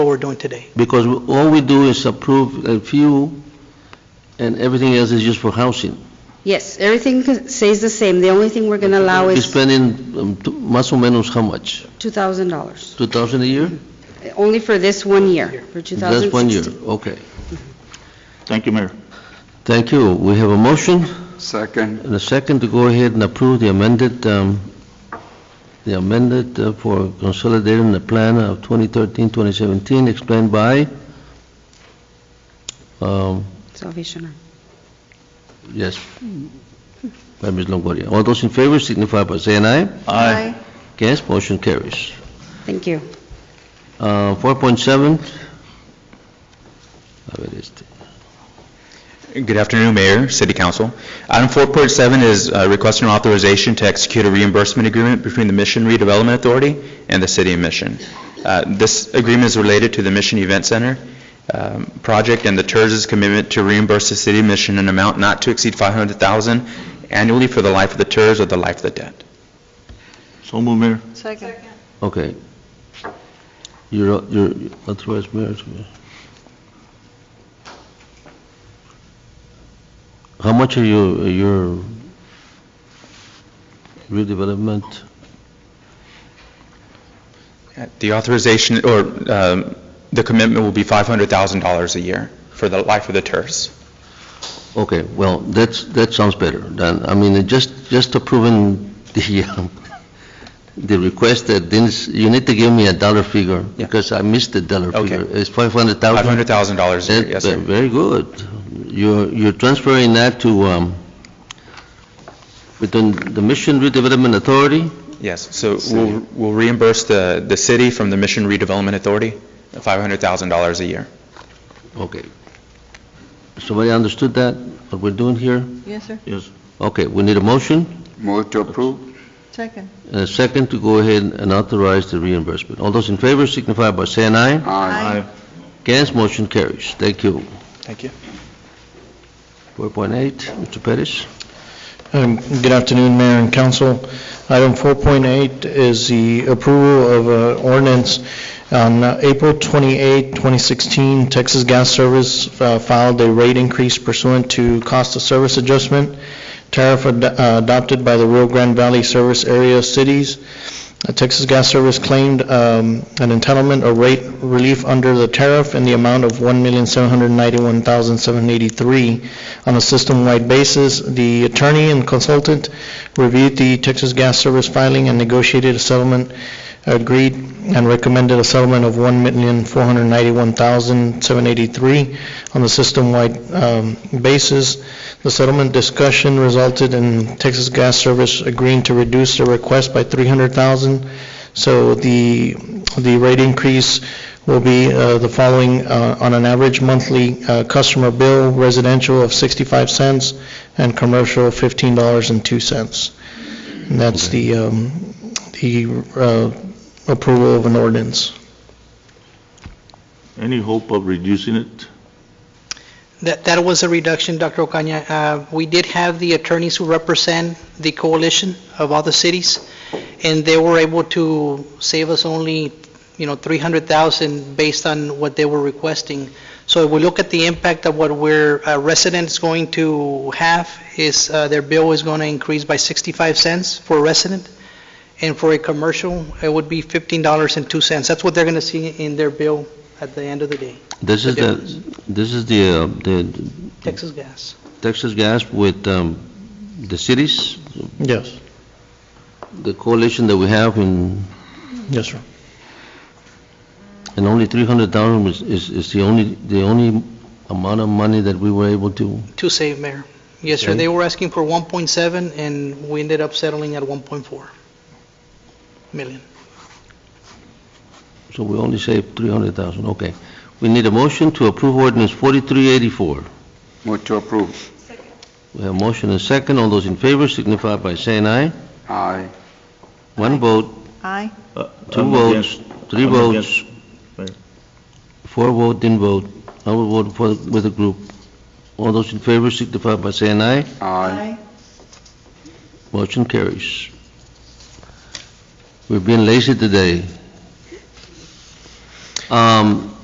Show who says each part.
Speaker 1: we're doing today.
Speaker 2: Because we- all we do is approve a few, and everything else is used for housing.
Speaker 3: Yes, everything stays the same. The only thing we're going to allow
Speaker 2: We're
Speaker 3: is
Speaker 2: spending um, t- más o menos how much?
Speaker 3: $2,000,
Speaker 2: 2,000 a year?
Speaker 3: only for this one year, for
Speaker 2: That's one year,
Speaker 3: 2016.
Speaker 2: okay.
Speaker 4: Thank you, Mayor.
Speaker 2: Thank you. We have a motion
Speaker 5: Second.
Speaker 2: and a second to go ahead and approve the amended, um, the amended uh, for consolidating the plan of 2013-2017 explained by, um,
Speaker 3: Salvation Army.
Speaker 2: yes, by Ms. Longoria. All those in favor signify by saying aye.
Speaker 4: Aye.
Speaker 2: Against, motion carries.
Speaker 3: Thank you.
Speaker 2: Uh, 4.7, a ver este.
Speaker 6: Good afternoon, Mayor, City Council. Item 4.7 is uh, requesting authorization to execute a reimbursement agreement between the Mission Redevelopment Authority and the City of Mission. Uh, This agreement is related to the Mission Event Center um, project and the TERS's commitment to reimburse the City of Mission an amount not to exceed $500,000 annually for the life of the TERS or the life of the debt.
Speaker 4: So move, Mayor.
Speaker 7: Second.
Speaker 2: Okay. You're, you're authorized mayor to- How much are you, your redevelopment?
Speaker 6: Uh, The authorization, or um, the commitment will be $500,000 a year for the life of the TERS.
Speaker 2: Okay, well, that's, that sounds better than, I mean, it just, just approving the, um, the request that this, you need to give me a dollar figure
Speaker 6: Yeah.
Speaker 2: because I missed the dollar
Speaker 6: Okay.
Speaker 2: figure. It's 500,000?
Speaker 6: $500,000 a year, yes,
Speaker 2: That-
Speaker 6: sir.
Speaker 2: uh, Very good. You're you're transferring that to, um, within the Mission Redevelopment Authority?
Speaker 6: Yes, so we'll we'll reimburse the the city from the Mission Redevelopment Authority, $500,000 a year.
Speaker 2: Okay. Somebody understood that, what we're doing here?
Speaker 7: Yes, sir.
Speaker 4: Yes.
Speaker 2: Okay, we need a motion,
Speaker 5: Move to approve?
Speaker 7: Second.
Speaker 2: and a second to go ahead and authorize the reimbursement. All those in favor signify by saying aye.
Speaker 5: Aye.
Speaker 2: Against, motion carries. Thank you.
Speaker 6: Thank you.
Speaker 2: 4.8, Mr. Pettis?
Speaker 8: Um, Good afternoon, Mayor and Council. Item 4.8 is the approval of uh, ordinance on uh, April 28, 2016, Texas Gas Service uh, filed a rate increase pursuant to cost of service adjustment tariff ad- uh, adopted by the Rio Grande Valley Service Area Cities. Uh, Texas Gas Service claimed um, an entitlement or rate relief under the tariff in the amount of $1,791,783 on a system-wide basis. The attorney and consultant reviewed the Texas Gas Service filing and negotiated a settlement, agreed and recommended a settlement of $1,491,783 on the system-wide um, basis. The settlement discussion resulted in Texas Gas Service agreeing to reduce the request by $300,000. So the, the rate increase will be uh, the following, uh, on an average monthly uh, customer bill, residential of 65 cents and commercial $15.02. And that's the, um, the uh, approval of an ordinance.
Speaker 4: Any hope of reducing it?
Speaker 1: That, that was a reduction, Dr. Ocaña. Uh, We did have the attorneys who represent the coalition of all the cities, and they were able to save us only, you know, 300,000 based on what they were requesting. So if we look at the impact of what we're, uh, residents going to have, is uh, their bill is going to increase by 65 cents for a resident, and for a commercial, it would be $15.02. That's what they're going to see in their bill at the end of the day,
Speaker 2: This is the, this is the, uh, the
Speaker 1: Texas Gas.
Speaker 2: Texas Gas with um, the cities,
Speaker 8: Yes,
Speaker 2: the coalition that we have in,
Speaker 8: yes, sir.
Speaker 2: and only 300,000 was- is, is the only, the only amount of money that we were able to,
Speaker 1: To save, Mayor. Yes, sir.
Speaker 2: Okay.
Speaker 1: They were asking for 1.7, and we ended up settling at 1.4 million.
Speaker 2: so we only saved 300,000, okay. We need a motion to approve ordinance 4384.
Speaker 5: Move to approve?
Speaker 2: We have motion and second, all those in favor signify by saying aye.
Speaker 5: Aye.
Speaker 2: One vote,
Speaker 7: Aye.
Speaker 4: Uh,
Speaker 2: two
Speaker 4: I'm
Speaker 2: votes,
Speaker 4: against-
Speaker 2: three
Speaker 4: I'm
Speaker 2: votes,
Speaker 4: Mayor.
Speaker 2: four vote, didn't vote. I will vote for, with the group. All those in favor signify by saying aye.
Speaker 5: Aye.
Speaker 2: Motion carries. We've been lazy today. Um,